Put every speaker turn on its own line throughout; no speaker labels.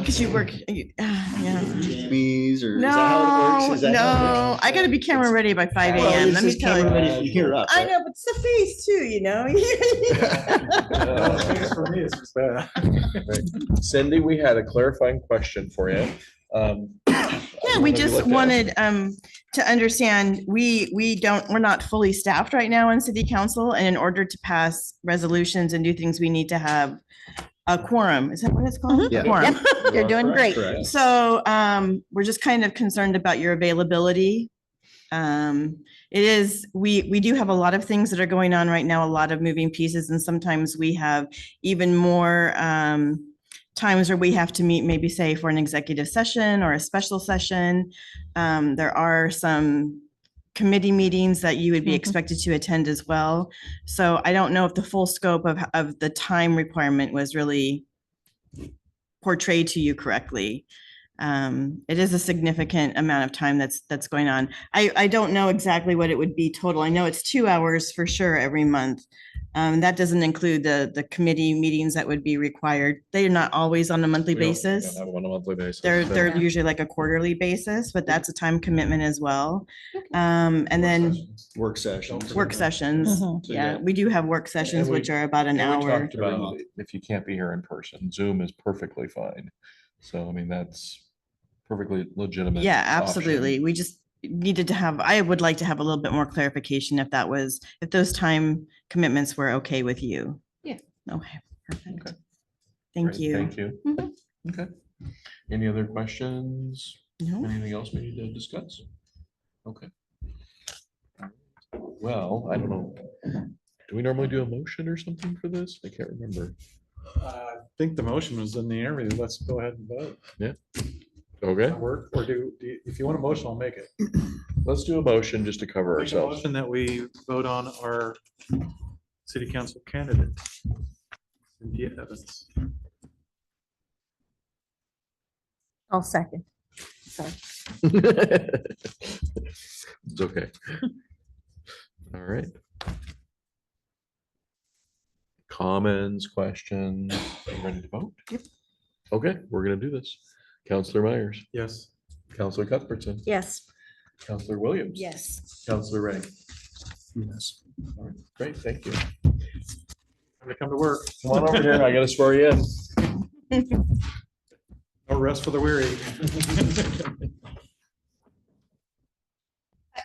Because you work, you- ah, yeah.
Jamie's or?
No,
Is that how it works? Is that how it
no, I gotta be camera ready by five
works? Well,
AM,
it's
let me
just
tell
camera
you.
ready from Here up.
I
right?
know, but it's the face too, you know?
For me, it's just that.
Cindy, we had a clarifying question for you. Um,
Yeah, we just wanted um to understand, we we don't, we're not fully staffed right now in city council, and in order to pass resolutions and do things, we need to have a quorum, is that what it's called?
Mm-hmm. Yeah.
A quorum.
You're doing great.
Correct.
So um, we're just kind of concerned about your availability. Um, it is, we, we do have a lot of things that are going on right now, a lot of moving pieces, and sometimes we have even more um times where we have to meet, maybe say for an executive session or a special session. Um, there are some committee meetings that you would be
Mhm.
expected to attend as well. So I don't know if the full scope of of the time requirement was really portrayed to you correctly. Um, it is a significant amount of time that's that's going on. I I don't know exactly what it would be total. I know it's two hours for sure every month. Um, that doesn't include the the committee meetings that would be required. They are not always on a monthly basis.
Have one on a monthly basis.
They're
so-
they're
Yeah.
usually like a quarterly basis, but that's a time commitment as well. Um, and
Work
then
sessions.
Work sessions.
work sessions.
Mm-hmm.
Mhm.
So,
Yeah, we do have work sessions,
we-
which are about an
And we
hour.
talked about If you can't be here in person, Zoom is perfectly fine. So I mean, that's perfectly legitimate.
Yeah,
option.
absolutely. We just needed to have, I would like to have a little bit more clarification if that was, if those time commitments were okay with you.
Yeah.
Okay, perfect.
Okay.
Thank
Great,
you.
Thank you. Mm-hmm.
Mhm.
Okay. Any other questions?
No?
Anything else we need to discuss? Okay. Well, I don't know. Do we normally do a motion or something for this? I can't remember.
I think the motion was in the area. Let's go ahead and vote.
Okay,
Does that Work, or do, do you- if you want a motion, I'll make it.
let's do a motion just to cover
Make a
ourselves.
Motion that we vote on our city council candidate. Cynthia Evans.
I'll second. Sorry.
It's okay. All right. Comments, questions, Are you ready to vote? Yep. Okay, we're gonna do this. Counselor Myers,
Yes.
Counselor Cuthbertson,
Yes.
Counselor Williams.
Yes.
Counselor Ray. Yes. Great, thank you.
I'm gonna come to work.
Come on over here, I gotta swear you in.
No rest for the weary.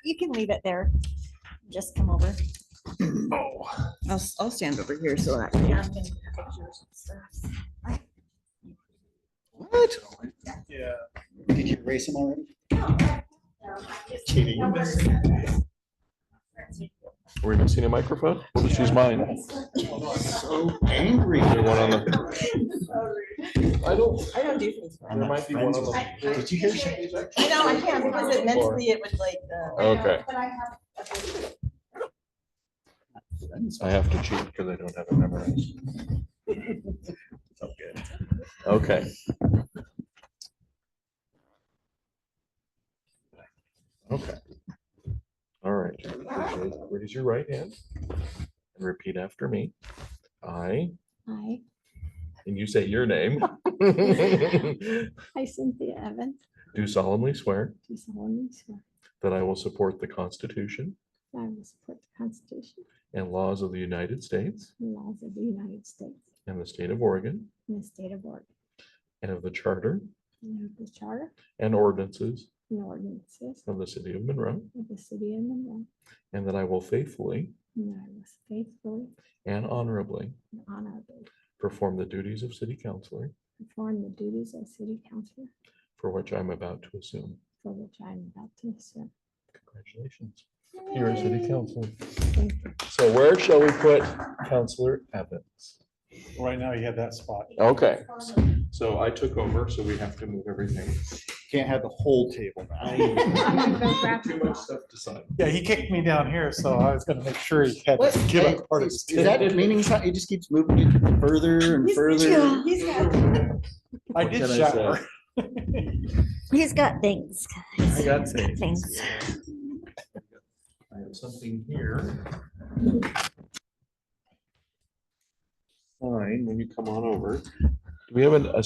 You can leave it there. Just come over.
Oh.
I'll, s- I'll stand over here so that.
Yeah, I'm gonna take pictures and stuff.
Yeah.
Did you race them already?
Cheating.
We're even seeing a microphone? We'll just use mine.
So angry.
Is there one on the? I don't,
I don't do things.
I'm not friends with them. Did you hear? she-
I know, I can't, because it mentally, it would like, uh,
Okay. I have to cheat because I don't have it memorized. Okay. Okay. All right. Raise your- Raise your right hand and repeat after me. I,
Hi,
and you say your name.
hi Cynthia Evans.
Do solemnly swear
Do solemnly swear
that I will support the Constitution
that I will support the Constitution
and laws of the United States
and laws of the United States
and the state of Oregon
and the state of Oregon,
and of the charter
and of the charter
and ordinances
and ordinances
of the city of Monroe,
of the city of Monroe,
and that I will faithfully
and that I will faithfully
and honorably
and honorably
perform the duties of city councillor
perform the duties of city councillor
for which I'm about to assume.
for which I am about to assume.
Congratulations. You're a city councillor.
Thank you.
So where shall we put Counselor Evans?
Right now, you have that spot.
Okay. So I took over, so we have to move everything.
Can't have the whole table.
Too much stuff to sign.
Yeah, he kicked me down here, so I was gonna make sure he had
What?
to give up part of his.
Is that
table.
meaning it's not- it just keeps moving it further and further?
I
What
did
can I
shower.
He's got things. guys.
I got
He's got Things.
I have something here. Fine, when you come on over. Do we have an- a